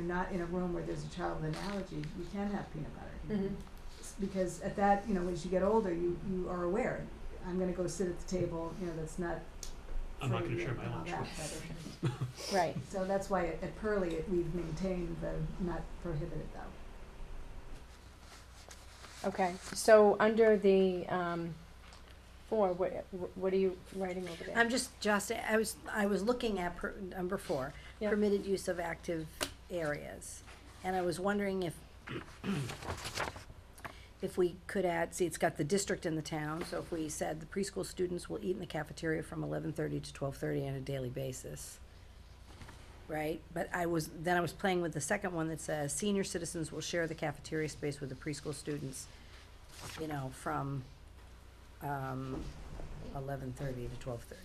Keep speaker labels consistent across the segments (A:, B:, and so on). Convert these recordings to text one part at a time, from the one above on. A: not in a room where there's a child with an allergy, you can have peanut butter.
B: Mhm.
A: S- Because at that, you know, as you get older, you, you are aware, I'm gonna go sit at the table, you know, that's not
C: I'm not
A: free
C: gonna share
A: and
C: my
A: all
C: lunch
A: that,
C: with.
A: but-
B: Right.
A: So that's why at at Pearlie, it- we've maintained the not prohibited though.
B: Okay. So under the um, four, what what are you writing over there?
D: I'm just, just, I was, I was looking at per, number four,
B: Yeah.
D: permitted use of active areas. And I was wondering if, if we could add, see, it's got the district in the town, so if we said the preschool students will eat in the cafeteria from eleven thirty to twelve thirty on a daily basis. Right, but I was, then I was playing with the second one that says senior citizens will share the cafeteria space with the preschool students, you know, from, um, eleven thirty to twelve thirty.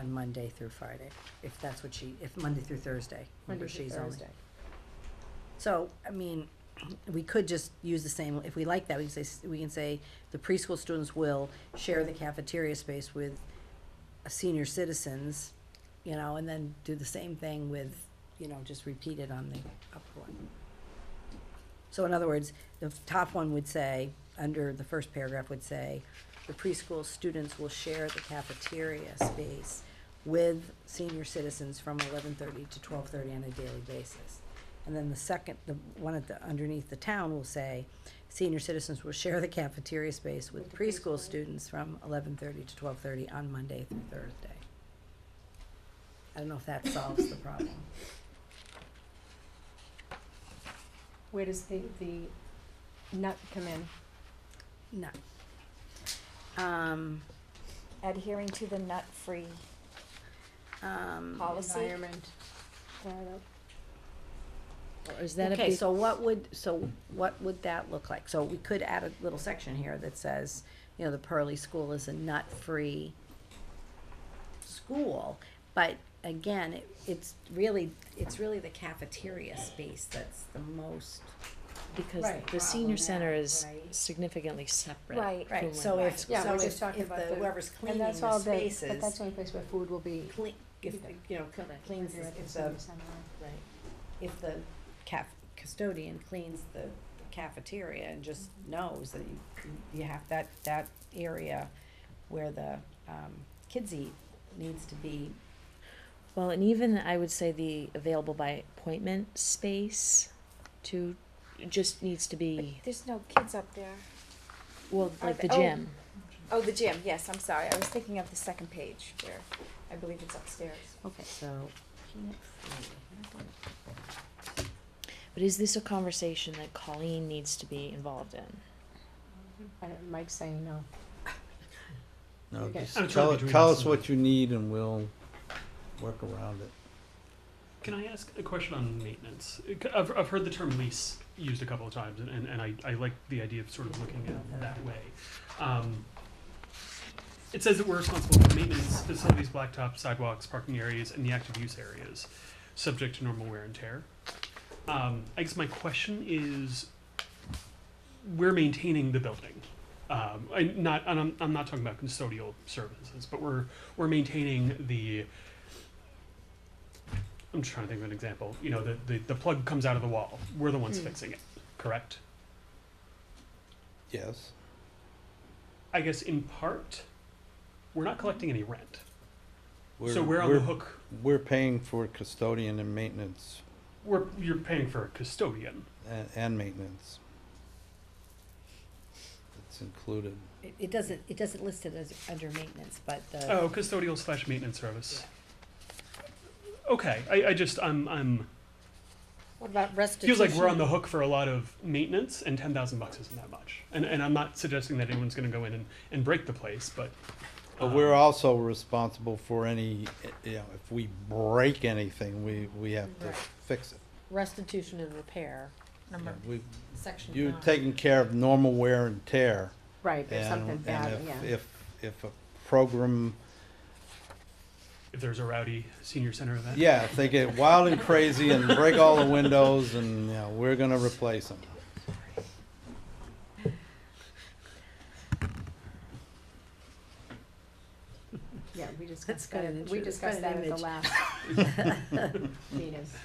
D: On Monday through Friday, if that's what she, if Monday through Thursday,
B: under
D: remember she's only.
B: Thursday.
D: So, I mean, we could just use the same, if we like that, we can say, s- we can say the preschool students will share the cafeteria space with senior citizens, you know, and then do the same thing with, you know, just repeat it on the upper one. So in other words, the f- top one would say, under the first paragraph would say, the preschool students will share the cafeteria space with senior citizens from eleven thirty to twelve thirty on a daily basis. And then the second, the one at the, underneath the town will say, senior citizens will share the cafeteria space with
B: With the
D: preschool
B: preschool.
D: students from eleven thirty to twelve thirty on Monday through Thursday. I don't know if that solves the problem.
B: Where does the the nut come in?
D: No. Um,
E: adhering to the nut-free
D: um.
E: policy.
B: Environment.
F: Or is that a
D: okay,
F: big,
D: so what would so what would that look like? So we could add a little section here that says, you know, the Pearly School is a nut-free school, but again, it, it's really it's really the cafeteria space that's the most
F: because
D: Right.
F: the senior center
D: Problematic,
F: is
D: right.
F: significantly separate.
E: Right.
F: from
D: right.
F: what-
D: So if
B: Yeah,
D: so
B: we're
D: if,
B: just talking
D: if
B: about
D: the,
B: the-
D: whoever's
B: And
D: cleaning
B: that's all
D: the
B: the,
D: spaces,
B: but that's the only place where food will be.
D: clean, if
B: Yeah.
D: you know cl- cleans the- if the
B: senior center.
D: if the caf- custodian cleans the cafeteria and just knows that you, you have that, that area where the, um, kids eat needs to be.
F: Well, and even I would say the available by appointment space to, just needs to be,
E: There's no kids up there.
F: E. well,
E: Are
F: like the
E: the- oh.
F: gym.
E: Oh, the gym, yes, I'm sorry, I was thinking of the second page where, I believe it's upstairs.
D: Okay. So, peanut free.
F: But is this a conversation that Colleen needs to be involved in?
B: I don't, Mike's saying no.
G: No,
B: Okay.
G: just
B: I'm
C: trying
G: tell,
C: to be
G: tell
C: doing
G: us what you need and we'll work around it.
C: Can I ask a question on maintenance? Uh, c- I've, I've heard the term lease used a couple of times, and, and, and I, I like the idea of sort of looking at it that way. Um, it says that we're responsible for maintenance, facilities, blacktop, sidewalks, parking areas, and the active use areas, subject to normal wear and tear. Um, I guess my question is, we're maintaining the building. Um, I not, and I'm, I'm not talking about custodial services, but we're, we're maintaining the, I'm trying to think of an example. You know, the, the, the plug comes out of the wall. We're the ones
B: Mm.
C: fixing it, correct?
G: Yes.
C: I guess in part, we're not collecting any rent.
G: We're,
C: so we're on
G: we're,
C: the hook.
G: we're paying for custodian and maintenance
C: We're, you're paying for a custodian.
G: and, and maintenance. It's included.
D: It, it doesn't, it doesn't list it as under maintenance, but the.
C: Oh, custodial slash maintenance service. Okay, I, I just, I'm, I'm,
D: What about restitution?
C: feels like we're on the hook for a lot of maintenance and ten thousand bucks isn't that much. And, and I'm not suggesting that anyone's gonna go in and, and break the place, but.
G: But
C: um,
G: we're also responsible for any, eh, you know, if we break anything, we, we have to
B: Right.
G: fix it.
B: Restitution and repair.
G: Yeah, We,
B: Section.
G: you're taking care of normal wear and tear.
B: Right, if
G: And,
B: something
G: and
B: bad,
G: if,
B: yeah.
G: if, if a program
C: If there's a rowdy senior center event.
G: Yeah, if they get wild and crazy and break all the windows and, you know, we're gonna replace them.
B: Yeah, we discussed
D: cut
B: that,
D: it
B: at-
D: into-
B: we
D: let's cut
B: discussed
D: it
B: that at the
D: image.
B: last meeting.